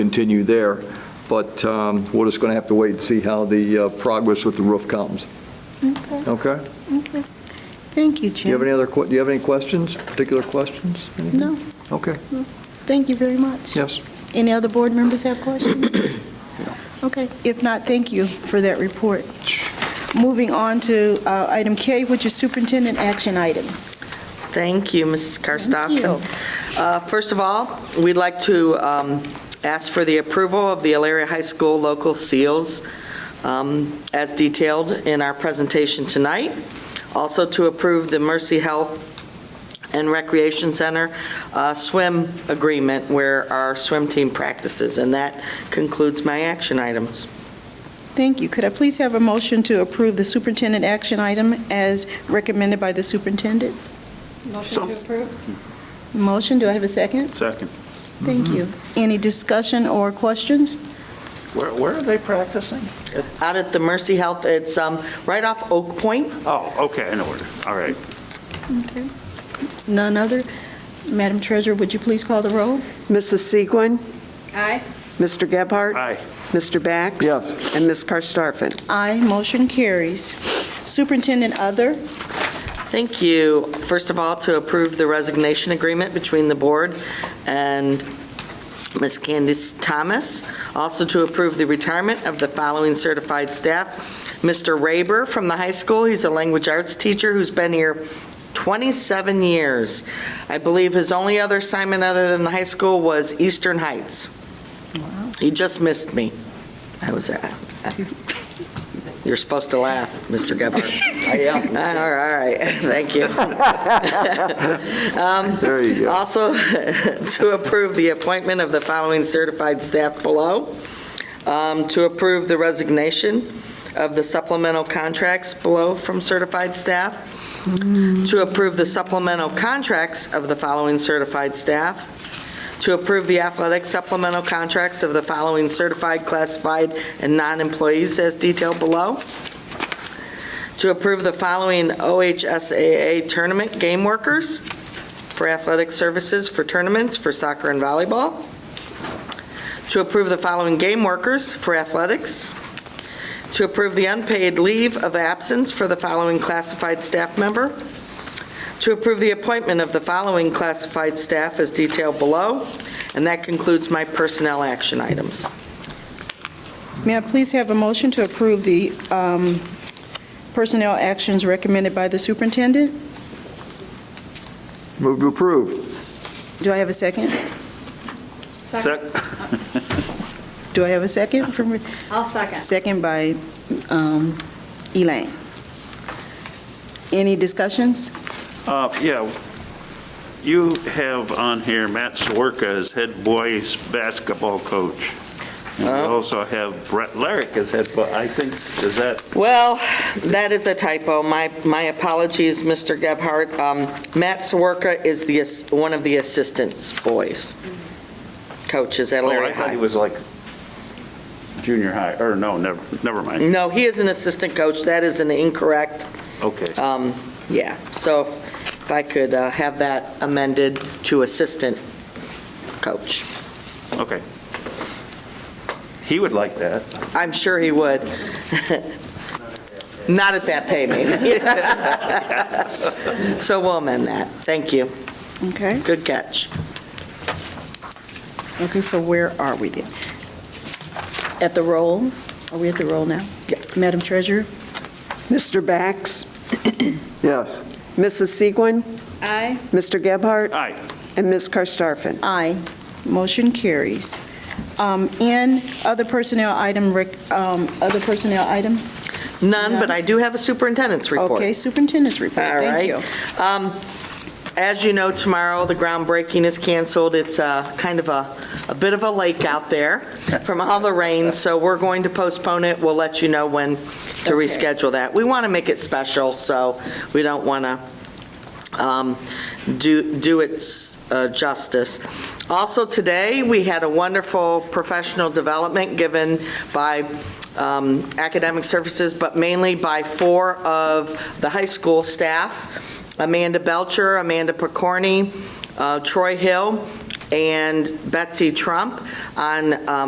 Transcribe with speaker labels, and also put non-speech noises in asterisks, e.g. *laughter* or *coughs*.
Speaker 1: continue there, but um, we're just going to have to wait and see how the uh, progress with the roof comes.
Speaker 2: Okay,
Speaker 1: Okay?
Speaker 2: okay. Thank you,
Speaker 1: Do you have
Speaker 2: Jim.
Speaker 1: any other, que- do you have any questions, particular questions? Anything?
Speaker 2: No,
Speaker 1: Okay,
Speaker 2: thank you very much.
Speaker 1: yes.
Speaker 2: Any other board members
Speaker 1: *coughs*
Speaker 2: have questions? Okay, if not, thank you for that report. Moving on to uh, item K, which is superintendent action items.
Speaker 3: Thank you, Mrs. Karstoffen. Uh, First of all, we'd like to um, ask for the approval of the Elaria High School local seals um, as detailed in our presentation tonight. Also to approve the Mercy Health and Recreation Center uh, swim agreement where our swim team practices. And that concludes my action items.
Speaker 2: Thank you. Could I please have a motion to approve the superintendent action item as recommended by the superintendent?
Speaker 4: Motion to approve?
Speaker 2: Motion, do I have a second?
Speaker 4: Second.
Speaker 2: Thank
Speaker 1: Mm-hmm.
Speaker 2: you. Any discussion or questions?
Speaker 4: Where, where are they practicing?
Speaker 3: Out at the Mercy Health, it's um, right off Oak Point.
Speaker 4: Oh, okay, in order, all right.
Speaker 2: Okay. None other? Madam Treasurer, would you please call the roll?
Speaker 5: Mrs. Segwin,
Speaker 6: Aye.
Speaker 5: Mr. Gebhardt?
Speaker 4: Aye.
Speaker 5: Mr. Bax?
Speaker 1: Yes.
Speaker 5: And Ms. Karstafen?
Speaker 2: Aye, motion carries. Superintendent Other,
Speaker 3: Thank you. First of all, to approve the resignation agreement between the board and Ms. Candace Thomas. Also to approve the retirement of the following certified staff. Mr. Raber from the high school, he's a language arts teacher who's been here 27 years. I believe his only other assignment other than the high school was Eastern Heights. He just missed me. I was, at- you're supposed to laugh, Mr.
Speaker 1: *laughs*
Speaker 3: Gebhardt. I am. All right, *laughs* thank you. Um,
Speaker 1: There you go.
Speaker 3: Also, *laughs* to approve the appointment of the following certified staff below, Um, to approve the resignation of the supplemental contracts below from certified staff, to approve the supplemental contracts of the following certified staff, to approve the athletic supplemental contracts of the following certified, classified, and non-employees as detailed below, to approve the following OHSAA tournament game workers, for athletic services for tournaments for soccer and volleyball, to approve the following game workers for athletics, to approve the unpaid leave of absence for the following classified staff member, to approve the appointment of the following classified staff as detailed below, and that concludes my personnel action items.
Speaker 2: may I please have a motion to approve the um, personnel actions recommended by the superintendent?
Speaker 1: Move to approve.
Speaker 2: Do I have a second?
Speaker 4: Sec-
Speaker 2: Do I have a second from,
Speaker 6: I'll second.
Speaker 2: second by um, Elaine? Any discussions?
Speaker 4: Uh, Yeah, you have on here Matt Swerka as head boys basketball coach. And we also have Brett Larrick as head, but I think, is that,
Speaker 3: Well, that is a typo. My, my apologies, Mr. Gebhardt. Um, Matt Swerka is the, ass- one of the assistants, boys, coaches at
Speaker 4: oh,
Speaker 3: Larry
Speaker 4: I thought he
Speaker 3: High.
Speaker 4: was like junior high, or no, never, never mind,
Speaker 3: No, he is an assistant coach. That is an incorrect,
Speaker 4: okay.
Speaker 3: um, yeah. So if if I could uh, have that amended to assistant coach.
Speaker 4: Okay. He would like that.
Speaker 3: I'm sure he would. *laughs* Not at that payment. *laughs* So we'll amend that. Thank you.
Speaker 2: Okay,
Speaker 3: Good catch.
Speaker 2: okay, so where are we then? At the roll? Are we at the roll now?
Speaker 3: Yeah.
Speaker 2: Madam Treasurer?
Speaker 5: Mr. *clears throat* Bax?
Speaker 1: Yes.
Speaker 5: Mrs. Segwin,
Speaker 6: Aye.
Speaker 5: Mr. Gebhardt?
Speaker 4: Aye.
Speaker 5: And Ms. Karstafen?
Speaker 2: Aye. Motion carries. Um, And other personnel item, rec- um, other personnel items?
Speaker 3: None, but I do have a superintendent's report.
Speaker 2: Okay, superintendent's report.
Speaker 3: All
Speaker 2: Thank
Speaker 3: right.
Speaker 2: you.
Speaker 3: Um, As you know, tomorrow, the groundbreaking is canceled. It's uh, kind of a, a bit of a lake out there from all the rain, so we're going to postpone it. We'll let you know when to
Speaker 2: Okay.
Speaker 3: reschedule that. We want to make it special, so we don't want to Um, do, do it s- uh, justice. Also, today, we had a wonderful professional development given by um, academic services, but mainly by four of the high school staff, Amanda Belcher, Amanda Picorni, uh, Troy Hill, and Betsy Trump on um,